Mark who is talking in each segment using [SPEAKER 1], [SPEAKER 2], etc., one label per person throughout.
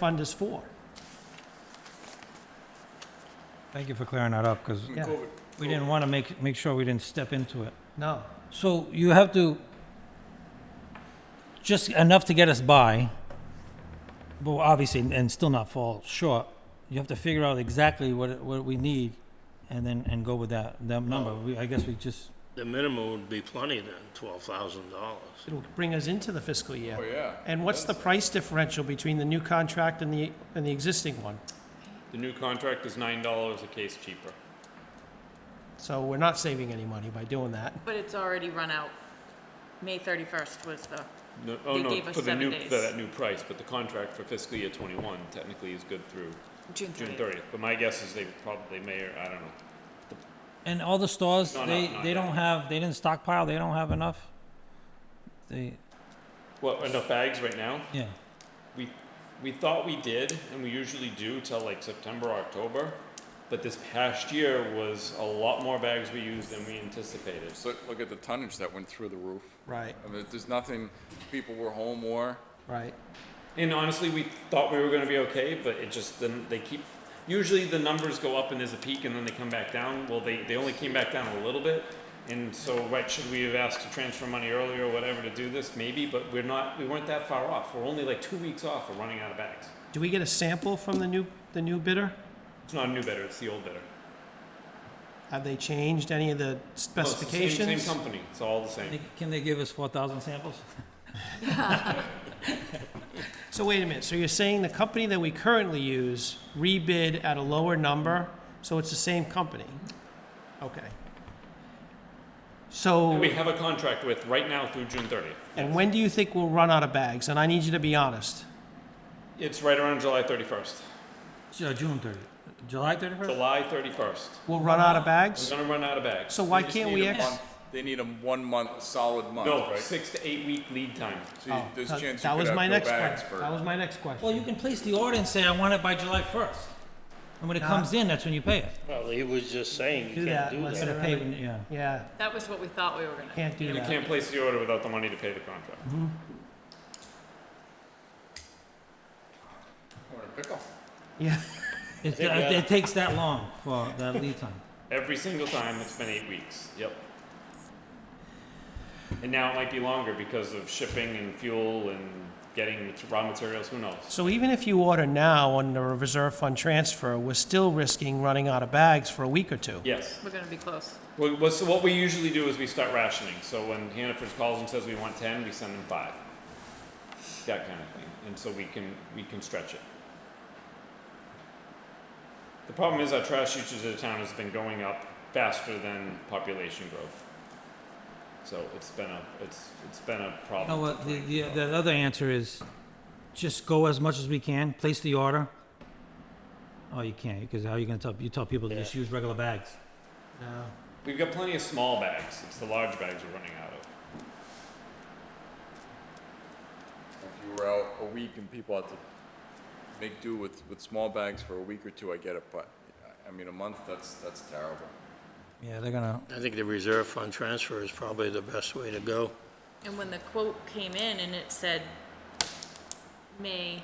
[SPEAKER 1] fund is for.
[SPEAKER 2] Thank you for clearing that up, because
[SPEAKER 1] Yeah.
[SPEAKER 2] we didn't want to make, make sure we didn't step into it.
[SPEAKER 1] No,
[SPEAKER 2] So you have to, just enough to get us by, but obviously, and still not fall short. You have to figure out exactly what, it- what we need, and then, and go with that, that number. We, I guess we just,
[SPEAKER 3] The minimum would be plenty then, twelve thousand dollars.
[SPEAKER 1] it'll bring us into the fiscal year.
[SPEAKER 4] Oh, yeah.
[SPEAKER 1] And what's the price differential between the new contract and the, and the existing one?
[SPEAKER 5] The new contract is nine dollars a case cheaper.
[SPEAKER 1] So we're not saving any money by doing that.
[SPEAKER 6] But it's already run out. May 31st was the,
[SPEAKER 5] No, oh
[SPEAKER 6] They
[SPEAKER 5] no,
[SPEAKER 6] gave us
[SPEAKER 5] for the
[SPEAKER 6] seven
[SPEAKER 5] new
[SPEAKER 6] days.
[SPEAKER 5] for that new price, but the contract for fiscal year twenty one technically is good through
[SPEAKER 6] June 30th.
[SPEAKER 5] June thirtieth. But my guess is they probably may or I don't know.
[SPEAKER 2] and all the stores,
[SPEAKER 5] No, no,
[SPEAKER 2] they,
[SPEAKER 5] not
[SPEAKER 2] they don't
[SPEAKER 5] yet.
[SPEAKER 2] have, they didn't stockpile, they don't have enough. They,
[SPEAKER 5] What enough bags right now?
[SPEAKER 2] yeah,
[SPEAKER 5] We we thought we did, and we usually do till like September, October. But this past year was a lot more bags we used than we anticipated.
[SPEAKER 4] Just look- look at the tonnage that went through the roof.
[SPEAKER 1] Right,
[SPEAKER 4] I mean, there's nothing, people were home more.
[SPEAKER 1] right.
[SPEAKER 5] And honestly, we thought we were going to be okay, but it just then they keep. Usually, the numbers go up and there's a peak, and then they come back down. Well, they they only came back down a little bit, and so what should we have asked to transfer money earlier or whatever to do this? Maybe, but we're not. We weren't that far off. We're only like two weeks off of running out of bags.
[SPEAKER 1] Do we get a sample from the new, the new bidder?
[SPEAKER 5] It's not a new bidder. It's the old bidder.
[SPEAKER 1] Have they changed any of the
[SPEAKER 5] No, it's the same-
[SPEAKER 1] specifications?
[SPEAKER 5] same company. It's all the same.
[SPEAKER 2] They- can they give us four thousand samples?
[SPEAKER 1] So wait a minute, so you're saying the company that we currently use rebid at a lower number, so it's the same company? Okay. So.
[SPEAKER 5] We have a contract with right now through June 30th.
[SPEAKER 1] And when do you think we'll run out of bags? And I need you to be honest.
[SPEAKER 5] It's right around July 31st.
[SPEAKER 2] Ju- June thirtieth, July thirty-first?
[SPEAKER 5] July 31st.
[SPEAKER 1] We'll run out of
[SPEAKER 5] We're
[SPEAKER 1] bags?
[SPEAKER 5] gonna run out of bags.
[SPEAKER 1] So why
[SPEAKER 4] They just
[SPEAKER 1] can't
[SPEAKER 4] need
[SPEAKER 1] we
[SPEAKER 4] a
[SPEAKER 1] ex-
[SPEAKER 4] month- They need a one month, solid month,
[SPEAKER 5] No,
[SPEAKER 4] right?
[SPEAKER 5] six to eight week lead time.
[SPEAKER 4] So you- there's a
[SPEAKER 1] Oh, That-
[SPEAKER 4] chance you
[SPEAKER 1] That
[SPEAKER 4] could
[SPEAKER 1] was
[SPEAKER 4] have
[SPEAKER 1] my
[SPEAKER 4] no
[SPEAKER 1] next
[SPEAKER 4] bags
[SPEAKER 1] question. That
[SPEAKER 4] for,
[SPEAKER 1] was my next
[SPEAKER 2] Well,
[SPEAKER 1] question.
[SPEAKER 2] you can place the order and say, I want it by July first. And when it
[SPEAKER 1] Nah.
[SPEAKER 2] comes in, that's when you pay it.
[SPEAKER 3] Well, he was just
[SPEAKER 1] Do
[SPEAKER 3] saying you can't
[SPEAKER 1] that,
[SPEAKER 3] do
[SPEAKER 1] let's-
[SPEAKER 3] that.
[SPEAKER 2] Gotta pay when- yeah.
[SPEAKER 1] Yeah,
[SPEAKER 6] That was what we thought we were gonna.
[SPEAKER 1] can't do
[SPEAKER 5] You
[SPEAKER 1] that.
[SPEAKER 5] can't place the order without the money to pay the contract.
[SPEAKER 4] or a pickle.
[SPEAKER 1] Yeah,
[SPEAKER 2] It, uh, it, it takes that long for that lead time.
[SPEAKER 5] Every single time, it's been eight weeks. Yep. And now it might be longer because of shipping and fuel and getting mat- raw materials, who knows?
[SPEAKER 1] so even if you order now on the reserve fund transfer, we're still risking running out of bags for a week or two.
[SPEAKER 5] Yes.
[SPEAKER 6] We're gonna be close.
[SPEAKER 5] Well, what- so what we usually do is we start rationing. So when Hannaford calls and says we want ten, we send them five. That kind of thing. And so we can, we can stretch it. The problem is our trash usage of the town has been going up faster than population growth. So it's been a, it's, it's been a
[SPEAKER 2] No,
[SPEAKER 5] problem.
[SPEAKER 2] well, the, the, the other answer is just go as much as we can, place the order. Oh, you can't, because how are you gonna tell, you tell people to just use regular bags?
[SPEAKER 1] No.
[SPEAKER 5] We've got plenty of small bags. It's the large bags we're running out of.
[SPEAKER 4] If you were out a week and people had to make do with, with small bags for a week or two, I get it, but, I- I mean, a month, that's, that's terrible.
[SPEAKER 2] Yeah, they're gonna,
[SPEAKER 3] I think the reserve fund transfer is probably the best way to go.
[SPEAKER 6] And when the quote came in and it said May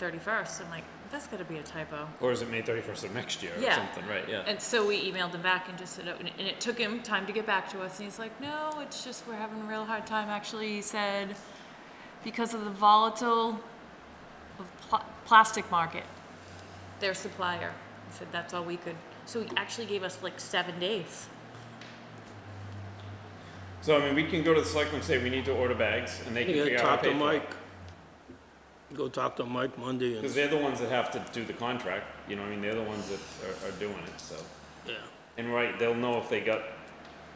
[SPEAKER 6] 31st, I'm like, that's gotta be a typo.
[SPEAKER 5] Or is it May thirty-first of next year or
[SPEAKER 6] Yeah.
[SPEAKER 5] something, right, yeah.
[SPEAKER 6] And so we emailed him back and just said, oh, and it took him time to get back to us. And he's like, no, it's just we're having a real hard time. Actually, he said, because of the volatile of pl- plastic market, their supplier. He said, that's all we could. So he actually gave us like seven days.
[SPEAKER 5] So, I mean, we can go to the selectmen and say we need to order bags and they can
[SPEAKER 3] You
[SPEAKER 5] figure
[SPEAKER 3] gotta
[SPEAKER 5] out how
[SPEAKER 3] talk
[SPEAKER 5] to
[SPEAKER 3] to
[SPEAKER 5] pay for it.
[SPEAKER 3] Mike. Go talk to Mike Monday
[SPEAKER 5] Because
[SPEAKER 3] and,
[SPEAKER 5] they're the ones that have to do the contract, you know, what I mean, they're the ones that are, are doing it, so.
[SPEAKER 3] yeah.
[SPEAKER 5] And right, they'll know if they got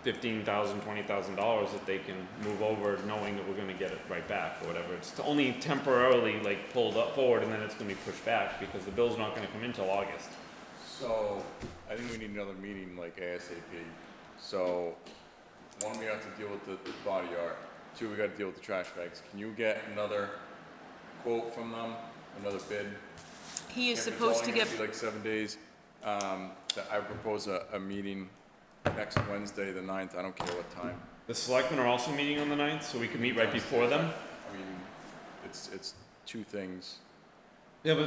[SPEAKER 5] fifteen thousand, twenty thousand dollars that they can move over, knowing that we're gonna get it right back or whatever. It's only temporarily like pulled up forward and then it's gonna be pushed back because the bill's not gonna come in till August.
[SPEAKER 4] So, I think we need another meeting like ASAP. So, one, we have to deal with the the body art, two, we gotta deal with the trash bags. Can you get another quote from them, another bid?
[SPEAKER 6] He is
[SPEAKER 4] If it's
[SPEAKER 6] supposed
[SPEAKER 4] only
[SPEAKER 6] to
[SPEAKER 4] gonna
[SPEAKER 6] get,
[SPEAKER 4] be Like seven days, um, that I propose a, a meeting next Wednesday, the ninth, I don't care what time.
[SPEAKER 5] The selectmen are also meeting on the ninth, so we can meet right before them.
[SPEAKER 4] I mean, it's, it's two things.
[SPEAKER 5] Yeah, but